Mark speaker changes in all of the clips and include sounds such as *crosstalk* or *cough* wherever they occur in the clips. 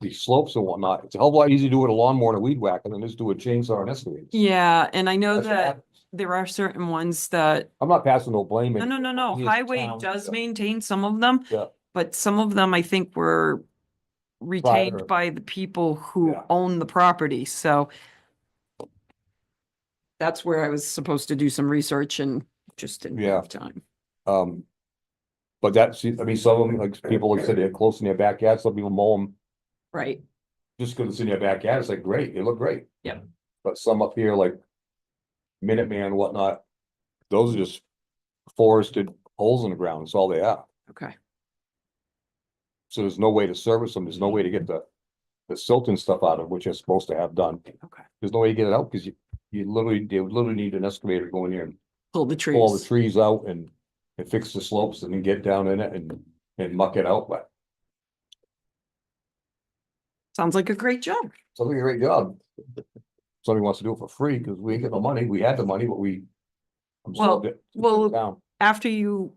Speaker 1: these slopes and whatnot, it's a hell of a lot easier to do it with a lawnmower and a weed whacker than it is to do a chainsaw and excavator.
Speaker 2: Yeah, and I know
Speaker 1: That's what
Speaker 2: that
Speaker 1: happened.
Speaker 2: there are certain ones that,
Speaker 1: I'm not passing no blame.
Speaker 2: no,
Speaker 1: in-
Speaker 2: no, no, no,
Speaker 1: Yes,
Speaker 2: highway
Speaker 1: town,
Speaker 2: does
Speaker 1: yeah.
Speaker 2: maintain some of them.
Speaker 1: Yeah.
Speaker 2: But some of them I think were
Speaker 1: Prior.
Speaker 2: retained by the people who
Speaker 1: Yeah.
Speaker 2: own the property, so. That's where I was supposed to do some research and just didn't
Speaker 1: Yeah.
Speaker 2: have time.
Speaker 1: Um, but that's, I mean, some of them, like, people, like I said, they're close in their backyard, some people mow them
Speaker 2: Right,
Speaker 1: just because it's in their backyard, it's like, great, they look great.
Speaker 2: Yeah.
Speaker 1: But some up here like Minuteman and whatnot, those are just forested holes in the ground, that's all they are.
Speaker 2: okay,
Speaker 1: So there's no way to service them, there's no way to get the, the silt and stuff out of, which you're supposed to have done.
Speaker 2: okay.
Speaker 1: There's no way to get it out, because you, you literally, they would literally need an excavator to go in here and
Speaker 2: Pull the
Speaker 1: pull all the
Speaker 2: trees.
Speaker 1: trees out and, and fix the slopes and then get down in it and, and muck it out, but
Speaker 2: Sounds like a great job.
Speaker 1: Sounds like a great job. Somebody wants to do it for free because we ain't getting the money. We had the money, but we. absorbed it
Speaker 2: well-
Speaker 1: down.
Speaker 2: After you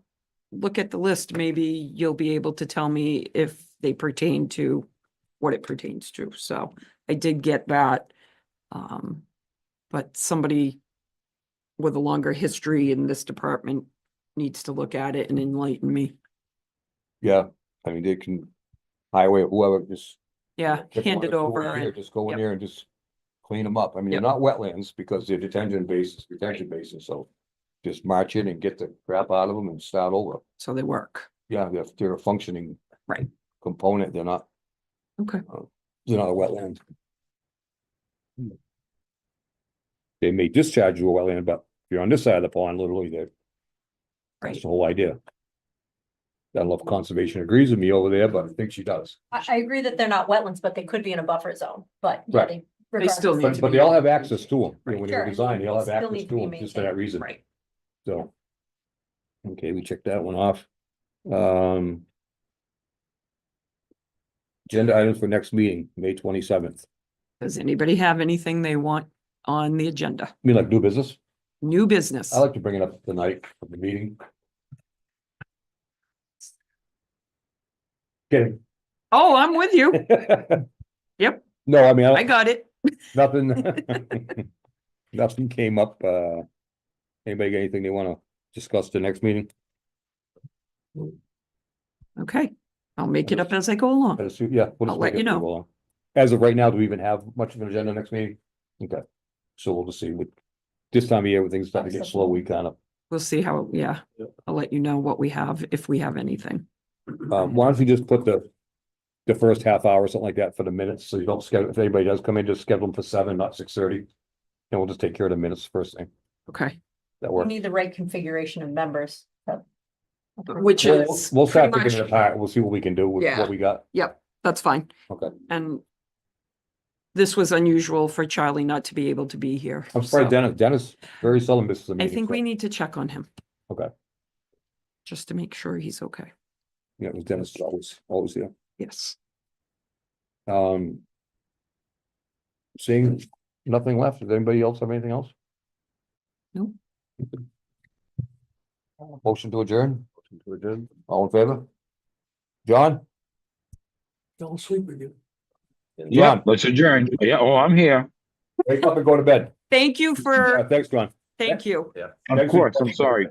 Speaker 2: look at the list, maybe you'll be able to tell me if they pertain to what it pertains to, so I did get that. Um, but somebody with a longer history in this department needs to look at it and enlighten me.
Speaker 1: Yeah, I mean, they can highway whoever just.
Speaker 2: Yeah,
Speaker 1: if they
Speaker 2: hand
Speaker 1: wanna
Speaker 2: it
Speaker 1: go in
Speaker 2: over.
Speaker 1: here,
Speaker 2: and-
Speaker 1: Just go in
Speaker 2: yep.
Speaker 1: there and just clean them up. I mean, they're
Speaker 2: Yep.
Speaker 1: not wetlands because they're detention bases, detention bases, so. Just march in and get the crap out of them and start over.
Speaker 2: So they work.
Speaker 1: Yeah, they're, they're a functioning.
Speaker 2: Right.
Speaker 1: Component, they're not, uh,
Speaker 2: Okay.
Speaker 1: they're not a wetland.
Speaker 2: Hmm.
Speaker 1: They may discharge you a wetland, but if you're on this side of the pond, literally, they're.
Speaker 2: Right.
Speaker 1: That's the whole idea. I don't know if conservation agrees with me over there, but I think she does.
Speaker 3: I, I agree that they're not wetlands, but they could be in a buffer zone, but. yeah,
Speaker 1: Right.
Speaker 3: they
Speaker 2: They still need
Speaker 3: regardless-
Speaker 2: to
Speaker 1: But, but
Speaker 2: be-
Speaker 1: they all have access to them.
Speaker 2: Right.
Speaker 1: When they were
Speaker 3: Sure.
Speaker 1: designed, they all have
Speaker 3: Still
Speaker 1: access
Speaker 3: need
Speaker 1: to
Speaker 3: to be
Speaker 1: them just for that
Speaker 3: maintained.
Speaker 1: reason.
Speaker 2: Right.
Speaker 1: So. Okay, we checked that one off. Um. Agenda items for next meeting, May twenty-seventh.
Speaker 2: Does anybody have anything they want on the agenda?
Speaker 1: I mean, like new business.
Speaker 2: New business.
Speaker 1: I like to bring it up tonight of the meeting. Kidding. *laughs*
Speaker 2: Oh, I'm with *laughs* you. Yep.
Speaker 1: No, I mean,
Speaker 2: I
Speaker 1: I-
Speaker 2: got it.
Speaker 1: nothing. *laughs* Nothing came up, uh. Anybody got anything they wanna discuss the next meeting?
Speaker 2: Okay, I'll make it up as I go along.
Speaker 1: But it's- yeah. we'll
Speaker 2: I'll
Speaker 1: just
Speaker 2: let
Speaker 1: make
Speaker 2: you
Speaker 1: it
Speaker 2: know.
Speaker 1: move along. As of right now, do we even have much of an agenda next meeting? Okay, so we'll just see with, this time of year, everything's starting to get slow, we kind of,
Speaker 2: We'll see how, yeah,
Speaker 1: Yep.
Speaker 2: I'll let you know what we have, if we have anything.
Speaker 1: um, why don't we just put the. The first half hour, or something like that for the minutes, so you don't schedule, if anybody does come in, just schedule them for seven, not six thirty. And we'll just take care of the minutes first thing,
Speaker 2: Okay,
Speaker 1: that
Speaker 3: You
Speaker 1: works.
Speaker 3: need the right configuration of members. so.
Speaker 2: Which
Speaker 1: We'll-
Speaker 2: is
Speaker 1: We'll start
Speaker 2: pretty
Speaker 1: picking it
Speaker 2: much-
Speaker 1: apart, we'll see what we can do with
Speaker 2: Yeah.
Speaker 1: what we got,
Speaker 2: that's fine.
Speaker 1: okay.
Speaker 2: And this was unusual for Charlie not to be able to be here.
Speaker 1: I'm sorry,
Speaker 2: so
Speaker 1: Dennis, Dennis very seldom misses a
Speaker 2: I
Speaker 1: meeting.
Speaker 2: think
Speaker 1: so-
Speaker 2: we need to check on him.
Speaker 1: Okay.
Speaker 2: Just to make sure he's okay.
Speaker 1: Yeah, it was Dennis is always, always here.
Speaker 2: Yes.
Speaker 1: Um. Seeing nothing left, does anybody else have anything else?
Speaker 2: No.
Speaker 1: Motion to adjourn? To adjourn. All in favor? John?
Speaker 4: Don't sleep with you.
Speaker 5: Yeah,
Speaker 1: John.
Speaker 5: let's adjourn. Yeah, oh, I'm here.
Speaker 1: Wake up and go to bed.
Speaker 2: Thank you
Speaker 1: Uh,
Speaker 2: for,
Speaker 1: Thanks, John.
Speaker 2: thank you.
Speaker 5: Of course, I'm sorry.